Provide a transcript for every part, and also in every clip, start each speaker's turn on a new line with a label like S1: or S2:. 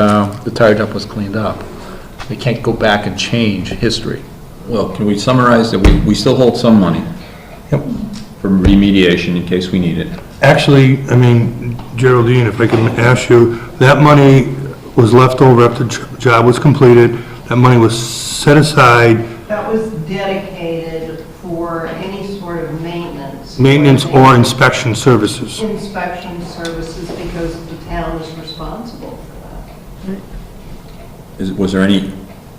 S1: uh, the tire dump was cleaned up. They can't go back and change history.
S2: Well, can we summarize that we, we still hold some money
S3: Yep.
S2: for remediation in case we need it?
S3: Actually, I mean, Geraldine, if I can ask you, that money was left over after the job was completed, that money was set aside,
S4: That was dedicated for any sort of maintenance.
S3: maintenance or inspection services.
S4: Inspection services because the town is responsible for that.
S2: Is, was there any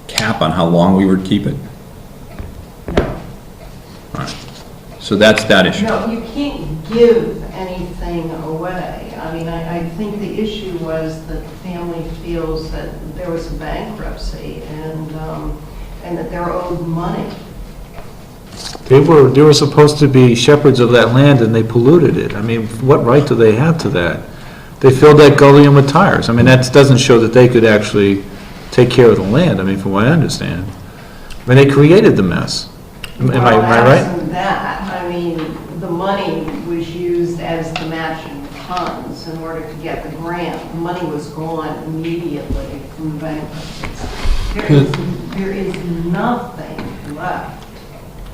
S2: cap on how long we would keep it?
S4: No,
S2: So that's that issue.
S4: no, you can't give anything away. I mean, I, I think the issue was that the family feels that there was a bankruptcy and, um, and that they're owed money.
S5: They were, they were supposed to be shepherds of that land, and they polluted it. I mean, what right do they have to that? They filled that gully in with tires. I mean, that doesn't show that they could actually take care of the land, I mean, from what I understand. I mean, they created the mess. Am I, am I
S4: Well,
S5: right?
S4: absent that, I mean, the money was used as the matching funds in order to get the grant. The Money was gone immediately from bankruptcy. There is, there is nothing left.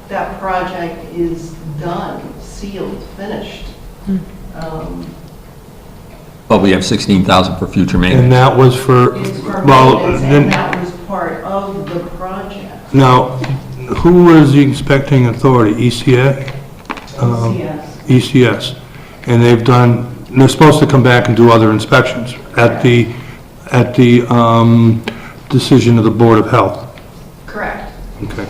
S4: That project is done, sealed, finished. Um,
S2: But we have sixteen thousand for future
S3: And
S2: maintenance.
S3: that was for,
S4: It's for
S3: well,
S4: maintenance, and
S3: then,
S4: that was part of the project,
S3: now, who was the inspecting authority, E ECA? Um,
S4: yes.
S3: ECS, and they've done, they're supposed to come back and do other inspections at the, at the um, decision of the Board of Health.
S4: Correct.
S3: Okay.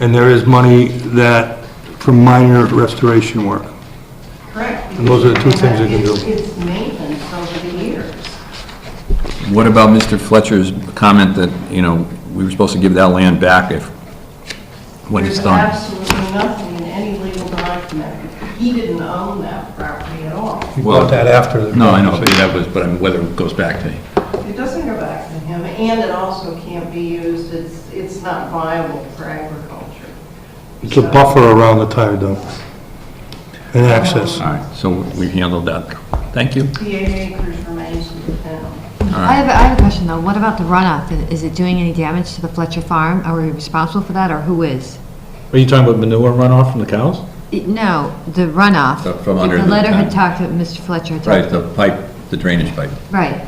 S3: And there is money that, for minor restoration work.
S4: Correct.
S3: And those are the two things you can do.
S4: It's maintenance over the years.
S2: What about Mr. Fletcher's comment that, you know, we were supposed to give that land back if, when it's
S4: There's
S2: done?
S4: absolutely nothing in any legal document. He didn't own that property at all.
S3: You
S2: Well,
S3: got that after the...
S2: No, I know, but that was, but I mean, whether it goes back to,
S4: It doesn't go back to him, and it also can't be used, it's, it's not viable for agriculture.
S3: It's a buffer around the tire dump and access.
S2: all right, so we handled that. Thank you.
S4: The eight acres remains with the town.
S6: I have, I have a question though, what about the runoff? Is it doing any damage to the Fletcher Farm? Are we responsible for that, or who is?
S5: Are you talking about manure runoff from the cows?
S6: It- No, the runoff.
S2: The- from under the-
S6: The letter had talked, to Mr. Fletcher had
S2: Right,
S6: talked.
S2: the pipe, the drainage pipe.
S6: Right,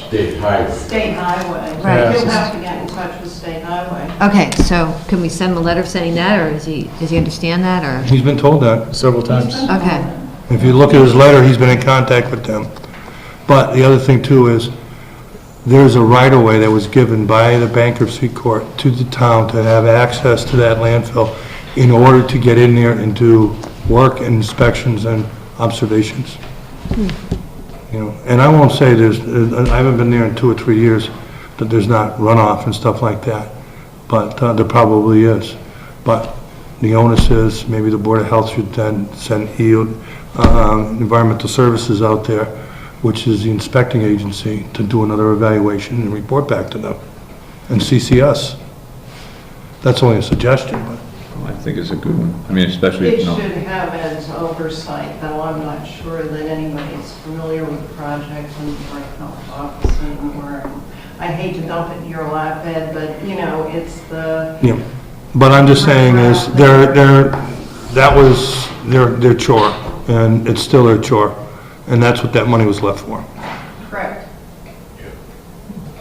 S4: State highway.
S6: Right.
S4: You'll have to get in touch with state highway.
S6: okay, so can we send him a letter saying that, or is he, does he understand that, or?
S3: He's been told that.
S5: Several times.
S6: Okay,
S3: If you look at his letter, he's been in contact with them. But the other thing too is, there's a right-of-way that was given by the bankruptcy court to the town to have access to that landfill in order to get in there and do work and inspections and observations. You know, and I won't say there's, I haven't been there in two or three years, that there's not runoff and stuff like that, but uh, there probably is. But the onus is, maybe the Board of Health should then send EO, um, Environmental Services out there, which is the inspecting agency, to do another evaluation and report back to them, and CC us. That's only a suggestion, but.
S2: I think it's a good one. I mean, especially,
S4: It
S2: if
S4: should
S2: no.
S4: have as oversight, though I'm not sure that anybody's familiar with the project in the Board of Health office anymore. I hate to dump it in your lap, Ed, but, you know, it's the,
S3: Yeah, but I'm just saying is, they're, they're, that was their, their chore, and it's still their chore, and that's what that money was left for.
S4: correct.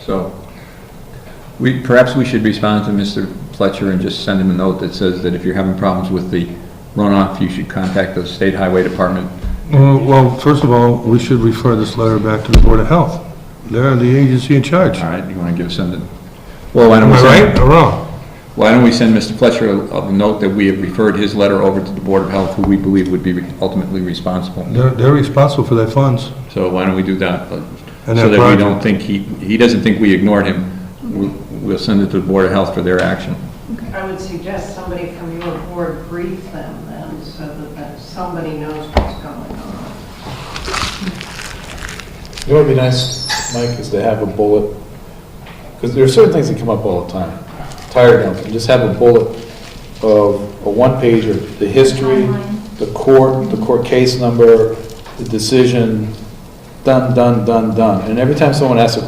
S2: So, we, perhaps we should respond to Mr. Fletcher and just send him a note that says that if you're having problems with the runoff, you should contact the state highway department.
S3: Uh, Well, first of all, we should refer this letter back to the Board of Health. They're the agency in charge.
S2: All right, you want to give, send it? Well, why don't
S3: Am
S2: we
S3: I right
S2: send,
S3: or wrong?
S2: why don't we send Mr. Fletcher a a note that we have referred his letter over to the Board of Health, who we believe would be ultimately responsible?
S3: They're, they're responsible for their funds.
S2: So why don't we do that? uh,
S3: And
S2: So
S3: that
S2: that we
S3: project.
S2: don't think he, he doesn't think we ignored him. We'll- We'll send it to the Board of Health for their action.
S4: I would suggest somebody from your board brief them then, so that- that somebody knows what's going on.
S7: You know what would be nice, Mike, is to have a bullet, because there are certain things that come up all the time. Tired of them, just have a bullet of a one-page of the history, the court, the court case number, the decision, done, done, done, done. And every time someone asks a